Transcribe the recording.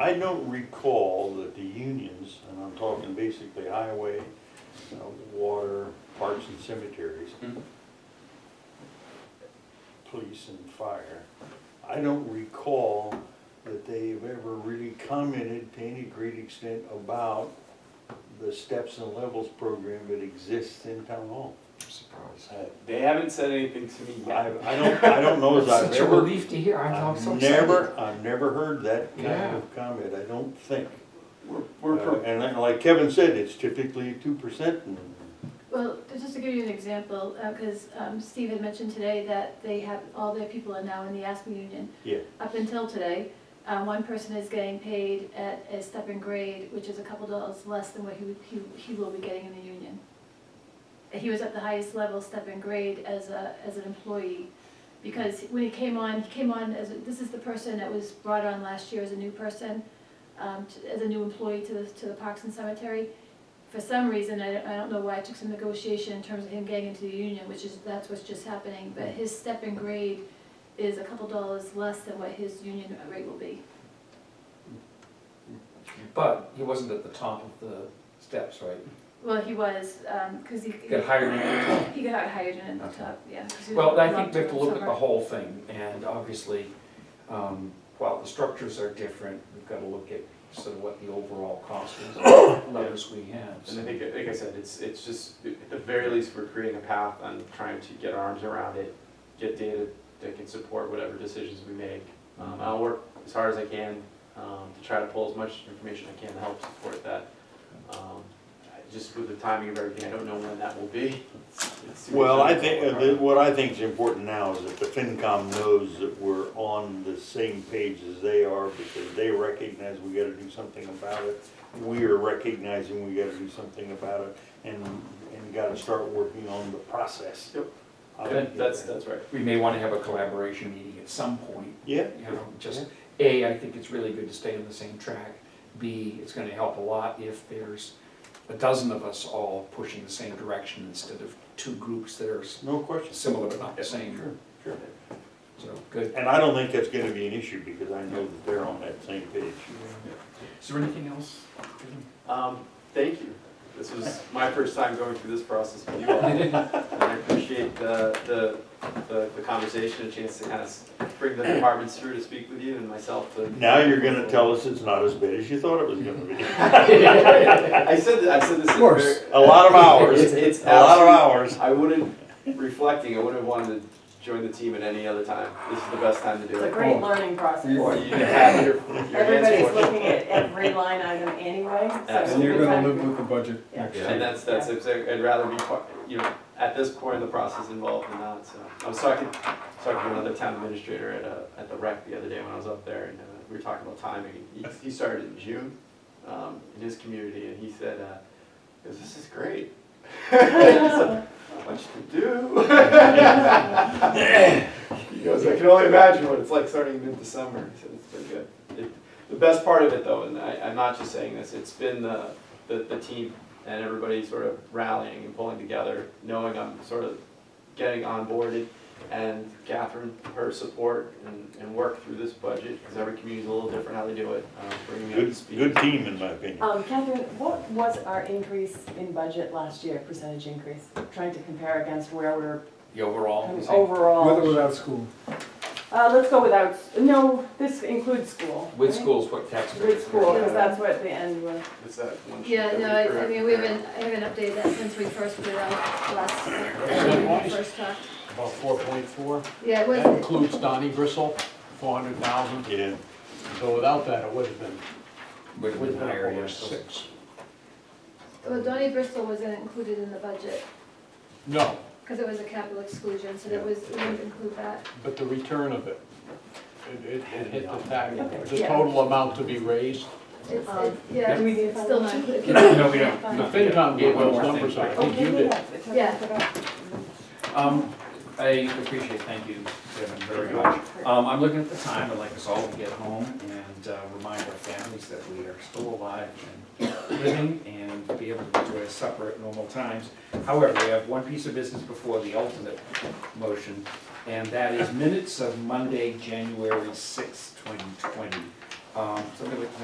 I don't recall that the unions, and I'm talking basically highway, uh, water, parks and cemeteries, Hmm. Mhm. police and fire, I don't recall that they've ever really commented to any great extent about the steps and levels program that exists in town hall. Surprised. I- Uh, They haven't said anything to me I, yet. I don't, I don't know as I've Such a ever, relief to hear, I'm, I'm so I've excited. never, I've never heard that kind Yeah. of comment, I don't think. We're, Uh, we're, pro- And then, like Kevin said, it's typically two percent. Well, just to give you an example, because Steve had mentioned today that they have, all their people are now in the ASME union. Yeah. Up until today, uh, one person is getting paid at a step and grade, which is a couple dollars less than what he, would- he- he will be getting in the union. He was at the highest level, step and grade, as a, as an employee. Because when he came on, he came on as, a- this is the person that was brought on last year as a new person, um, to- as a new employee to the, to the Parks and Cemetery for some reason, I don't, I don't know why, it took some negotiation in terms of him getting into the union, which is, that's what's just happening, but his step and grade is a couple dollars less than what his union rate will be. But he wasn't at the top of the steps, right? Well, he was, um 'cause cause he, He Got hired at the top. he got hired in at the Okay. top, yeah. 'cause he was Well, I think locked we have to in look at the somewhere. whole thing, and obviously, um, while the structures are different, we've gotta look at sort of what the overall cost is, levers we have. and so. I think, like I said, it's, it's just, at the very least, we're creating a path on trying to get our arms around it, get data that can support whatever decisions we make. Um, I'll work as hard as I can, um, to try to pull as much information I can to help support that. Um, I- Just with the timing of everything, I don't know when that will be. It's- it's- Well, I think, uh, the- what I think is important now is that the FinCom knows that we're on the same page as they are because they recognize we gotta do something about it. We are recognizing we gotta do something about it and, and gotta start working on the process. Yep. How to Yeah, get That's, there. that's right. We may wanna have a collaboration meeting at some point, Yeah, you know, just, A, I think it's really good to stay on the same track. B, it's gonna help a lot if there's a dozen of us all pushing the same direction instead of two groups that are s- no question. similar but not the Sure, same, sure. so, good. And I don't think that's gonna be an issue because I know that they're on that same page. Is there anything else? Um, thank you. This was my first time going through this process with you all. And I appreciate the, the, the, the conversation, a chance to kind of bring the departments through to speak with you and myself to. Now you're gonna tell us it's not as bad as you thought it was gonna be. I said, that- I said this. Of course. A lot of hours, It's, it's. a lot of absolute- hours. I wouldn't, reflecting, I wouldn't have wanted to join the team at any other time. This is the best time to do It's a it. great learning You process. have your, your hands Everybody's full. looking at every line item anyway, so. And And you're gonna live with the budget next Yeah. year. And that's, that's, exact- I'd rather be, part- you know, at this point in the process involved than not, so. I was talking, talking to another town administrator at, uh, at the rec the other day when I was up there, and uh, we were talking about timing. He, he started in June, um, in his community, and he said, uh, he goes, this is great. So, Not much to do. He goes, I can only imagine what it's like starting mid-December, he said, it's been good. It- The best part of it though, and I, I'm not just saying this, it's been the, the, the team and everybody sort of rallying and pulling together, knowing I'm sort of getting onboarded and Catherine, her support and, and work through this budget, because every community's a little different how they do it, um, bringing me up to Good, speed. good team in my opinion. Um, Catherine, what was our increase in budget last year, percentage increase? Trying to compare against where we're The overall, coming is it With or overall. without school. Uh, let's go without, no, this includes school. with right? schools, what tax rate? With school, because that's what the end was. It's that one sheet Yeah, that we no, I, I forgot. mean, we haven't, I haven't updated that since we first put it out last, when we first talked. About four point four, Yeah, it that was, includes Donnie Gristle, four hundred thousand, Yeah, so without that, it would have been, Would have would been have been higher, up yeah, over so- six. well, Donnie Bristol wasn't included in the budget, No, cause it was a capital exclusion, so that was, we didn't include that. but the return of it, it, it it hit the tax, Okay, the yeah. total amount to be raised. It's, Um, it- yeah, do we need it's to- still not included. No, we don't. The The no, FinCom yeah, gave one those more thing. numbers, I think Okay, you did. yeah, it's- Um, I appreciate, thank you, Kevin, very much. Um, I'm looking at the time, I'd like us all to get home and uh, remind our families that we are still alive and living and be able to enjoy supper at normal times. However, we have one piece of business before the ultimate motion, and that is minutes of Monday, January sixth, twenty twenty. Um, so I'm gonna